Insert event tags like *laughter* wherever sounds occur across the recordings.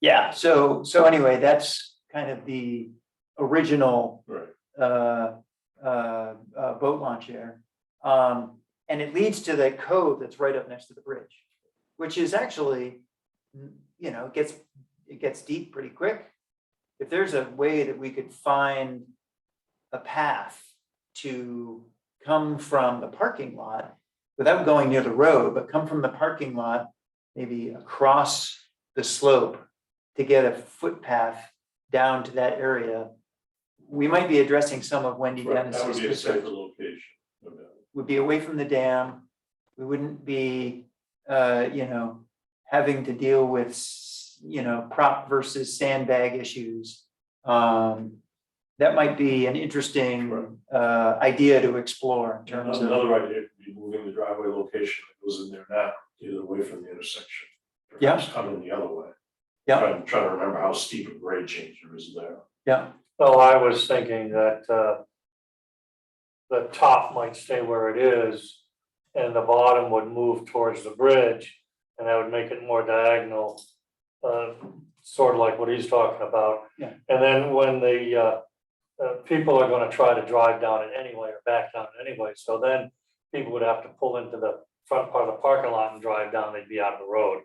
Yeah, so, so anyway, that's kind of the original Right. uh, uh, uh, boat launch there. Um, and it leads to the cove that's right up next to the bridge, which is actually, mm, you know, it gets, it gets deep pretty quick. If there's a way that we could find a path to come from the parking lot without going near the road, but come from the parking lot, maybe across the slope to get a footpath down to that area, we might be addressing some of Wendy Right, Dennis's That would be a concerns safer location. no doubt. would be away from the dam. We wouldn't be, uh, you know, having to deal with, s- you know, prop versus sandbag issues. Um, that might be an Right. interesting, uh, idea to explore in terms of, Another idea could be moving the driveway location that goes in there now, either away from the intersection. Yeah. Perhaps coming the other way. Yeah. Trying, trying to remember how steep a grade change there is there. yeah, Well, I was thinking that, uh, the top might stay where it is and the bottom would move towards the bridge and that would make it more diagonal, uh, sort of like what he's talking about. Yeah. And then when the, uh, uh, people are gonna try to drive down it anyway or back down it anyway, so then people would have to pull into the front part of the parking lot and drive down, they'd be out of the road.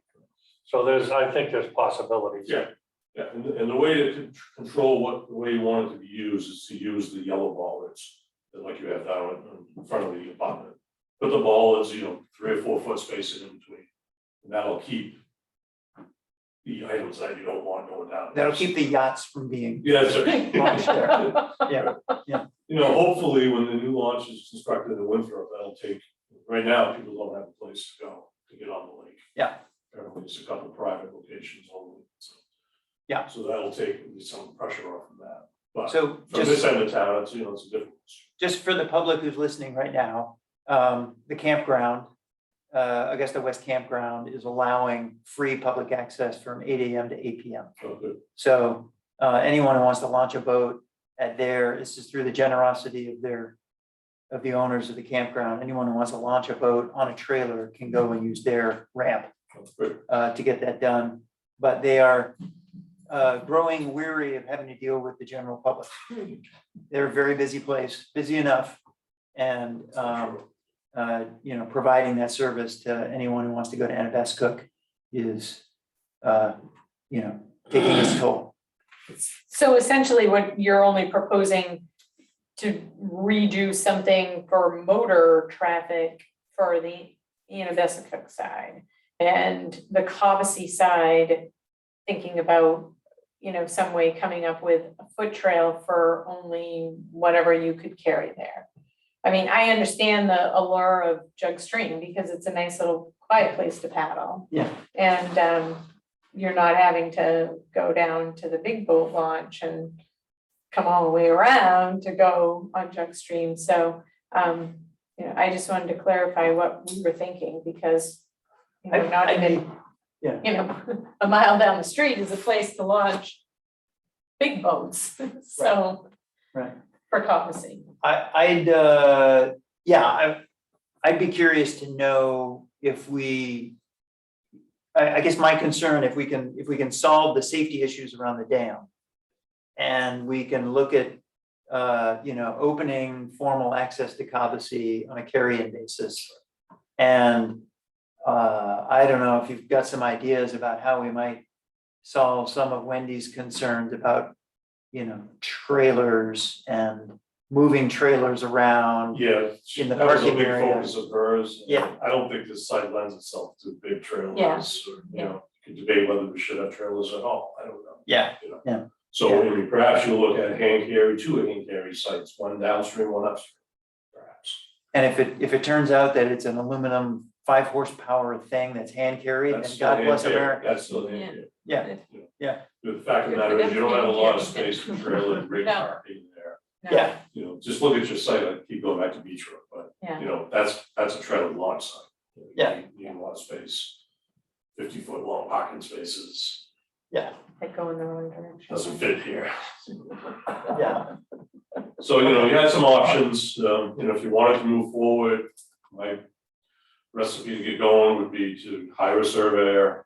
So there's, I think there's possibilities. Yeah. Yeah, and, and the way to con- control what, the way you want it to be used is to use the yellow ball that's, that like you have down in- in front of the apartment. Put the ball as, you know, three or four foot spacing in between, and that'll keep the items that you don't want going down. that'll keep the yachts from being, Yeah, *laughs* that's right. Launch there. Yeah, yeah. You know, hopefully, when the new launch is constructed in Winthrop, that'll take, right now, people don't have a place to go to get on the lake. Yeah. There are just a couple private locations only, so. Yeah. So that'll take at least some pressure off of that, but so from this just, end of town, it's, you know, it's a different. just for the public who's listening right now, um, the campground, uh, Augusta West Campground is allowing free public access from eight AM to eight PM. so good. So uh, anyone who wants to launch a boat at their, this is through the generosity of their, of the owners of the campground. Anyone who wants to launch a boat on a trailer can go and use their ramp so good. uh, to get that done. But they are uh, growing weary of having to deal with the general public. They're a very busy place, busy enough. And, um, uh, you know, providing that service to anyone who wants to go to Anabescook is, uh, you know, taking its toll. So essentially what you're only proposing to redo something for motor traffic for the Anabesic side. And the Cobussy side, thinking about, you know, some way coming up with a foot trail for only whatever you could carry there. I mean, I understand the allure of Jug Stream because it's a nice little quiet place to paddle. Yeah. And um, you're not having to go down to the big boat launch and come all the way around to go on Jug Stream. So, um, you know, I just wanted to clarify what we were thinking because you know, I- not I even mean, yeah. you know, *laughs* a mile down the street is a place to launch big boats, *laughs* so. Right. For coffee. I, I'd, uh, yeah, I, I'd be curious to know if we, I, I guess my concern, if we can, if we can solve the safety issues around the dam. And we can look at, uh, you know, opening formal access to Cobussy on a carry-in basis. And, uh, I don't know if you've got some ideas about how we might solve some of Wendy's concerns about, you know, trailers and moving trailers around. Yeah, In the that was a parking big area. focus of hers. Yeah. I don't think this site lends itself to big trailers, Yeah. or, you Yeah. know, you could debate whether we should have trailers at all, I don't know. Yeah, you know. Yeah. So I mean, perhaps you look at hand carry, two hand carry sites, one downstream, one upstream, perhaps. and if it, if it turns out that it's an aluminum five horsepower thing that's hand carried, That's then still God hand bless carry, America. That's still hand Yeah. carry. Yeah, yeah. The fact of the matter is, you don't have a lot of space for trailer and rig No. parking there. Yeah. You know, just look at your site, I keep going back to Beach Road, but Yeah, you know, that's, that's a trailer launch site. You know, you Yeah. need- You need a lot of space. Fifty foot long parking spaces, they go in the wrong direction. doesn't fit here. yeah, So, you know, you had some options, um, you know, if you wanted to move forward, my recipe to get going would be to hire a surveyor.